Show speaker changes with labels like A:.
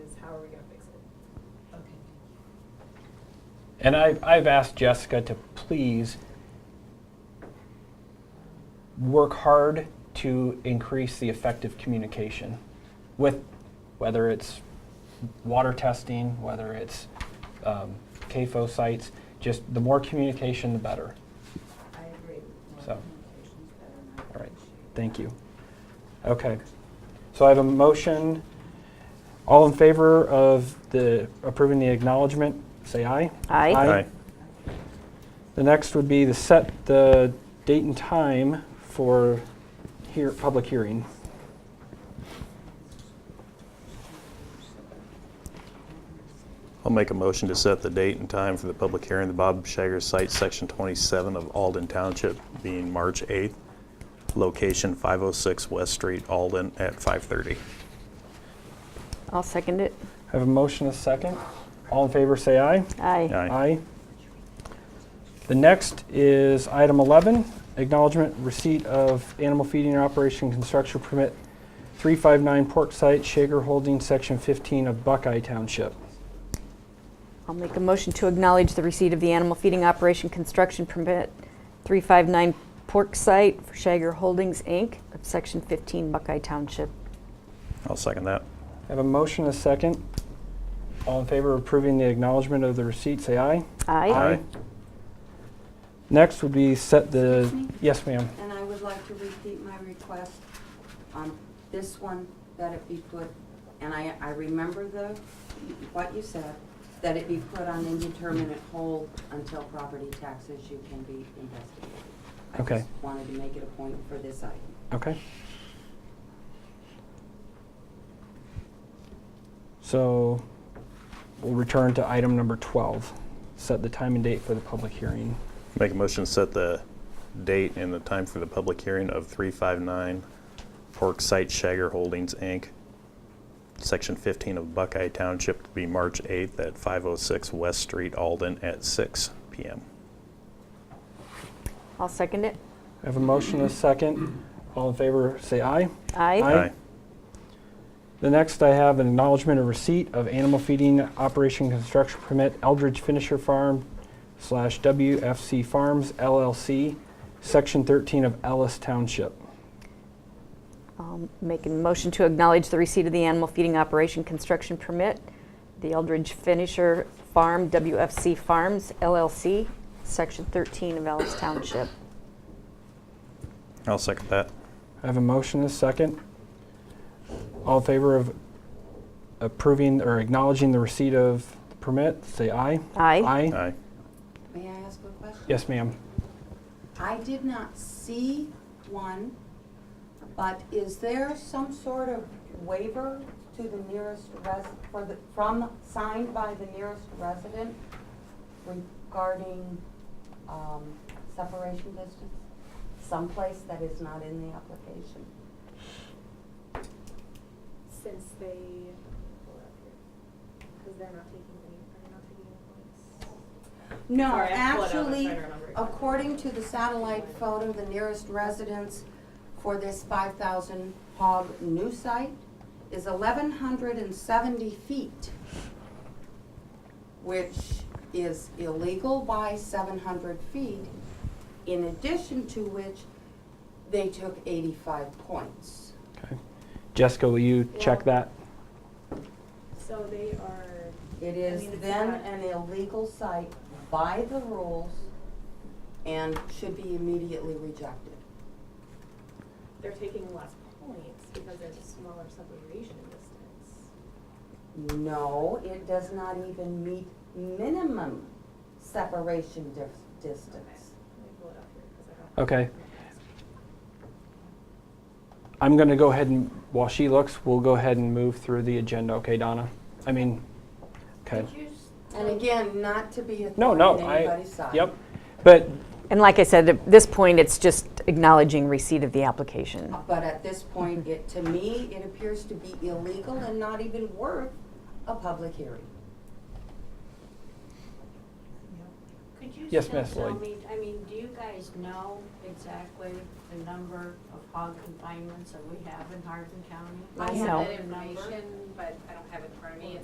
A: how are we gonna fix it?
B: Okay.
C: And I've, I've asked Jessica to please work hard to increase the effective communication with whether it's water testing, whether it's um, CAFO sites, just the more communication, the better.
B: Um, I agree. More
C: So.
B: communication's better and I
C: All right,
B: appreciate it.
C: thank you. Okay, so I have a motion. All in favor of the approving the acknowledgement, say aye.
D: Aye.
C: Aye. The next would be to set the date and time for here, public hearing.
E: I'll make a motion to set the date and time for the public hearing, the Bob Shager Site, Section 27 of Alden Township, being March 8th, location 506 West Street, Alden, at 5:30.
D: I'll second it.
C: I Have a motion, a second. All in favor, say aye.
D: Aye.
E: Aye.
C: The next is item 11, acknowledgement receipt of animal feeding and operation construction permit 359 Pork Site, Shaker Holding, Section 15 of Buckeye Township.
D: I'll make a motion to acknowledge the receipt of the animal feeding operation construction permit 359 Pork Site for Shager Holdings, Inc., of Section 15 Buckeye Township.
E: I'll second that.
C: I Have a motion, a second. All in favor of approving the acknowledgement of the receipt, say aye.
D: Aye.
C: Next would be set the,
B: Excuse me?
C: yes, ma'am.
B: And I would like to repeat my request on this one, that it be put, and I, I remember the, what you said, that it be put on indeterminate hold until property tax issue can be investigated. I
C: Okay.
B: just wanted to make it a point for this item.
C: Okay. So we'll return to item number 12, set the time and date for the public hearing.
E: Make a motion to set the date and the time for the public hearing of 359 Pork Site Shager Holdings, Inc., Section 15 of Buckeye Township, to be March 8th at 506 West Street, Alden, at 6 PM.
D: I'll second it.
C: I have a motion and a second. All in favor, say aye.
D: Aye.
C: Aye. The next I have an acknowledgement of receipt of animal feeding operation construction permit Eldridge Finisher Farm slash WFC Farms LLC, Section 13 of Ellis Township.
D: I'll make a motion to acknowledge the receipt of the animal feeding operation construction permit, the Eldridge Finisher Farm, WFC Farms, LLC, Section 13 of Ellis Township.
E: I'll second that.
C: I have a motion and a second. All in favor of approving or acknowledging the receipt of the permit, say aye.
D: Aye.
C: Aye.
E: Aye.
B: May I ask a question?
C: Yes, ma'am.
B: I did not see one, but is there some sort of waiver to the nearest res, for the, from, signed by the nearest resident regarding, um, separation distance? Someplace that is not in the application?
A: Since they, pull it up here, because they're not taking any, they're not taking any points.
B: No,
A: Sorry, I pulled it up. I'm
B: actually,
A: trying to remember.
B: according to the satellite photo, the nearest residence for this five thousand hog new site is eleven hundred and seventy feet, which is illegal by seven hundred feet, in addition to which they took eighty-five points.
C: Okay. Jessica, will you check
A: Yeah.
C: that?
A: So they are,
B: It
A: I
B: is
A: mean, it's
B: then
A: not-
B: an illegal site by the rules and should be immediately rejected.
A: they're taking less points because there's a smaller separation distance.
B: No, it does not even meet minimum separation dif- distance.
A: Let me pull it up here 'cause I don't-
C: Okay. I'm going to go ahead and, while she looks, we'll go ahead and move through the agenda. Okay, Donna? I mean, okay.
B: And again, not to be a
C: No,
B: thorn
C: no,
B: in
C: I,
B: anybody's side.
C: yep. But,
D: And like I said, at this point, it's just acknowledging receipt of the application.
B: But at this point, it, to me, it appears to be illegal and not even worth a public hearing.
F: Could you
C: Yes,
F: still
C: Miss
F: tell
C: Lloyd.
F: me, I mean, do you guys know exactly the number of hog confinements that we have in Hardin County?
A: I
D: No.
A: have that information, but I don't have it in front of me.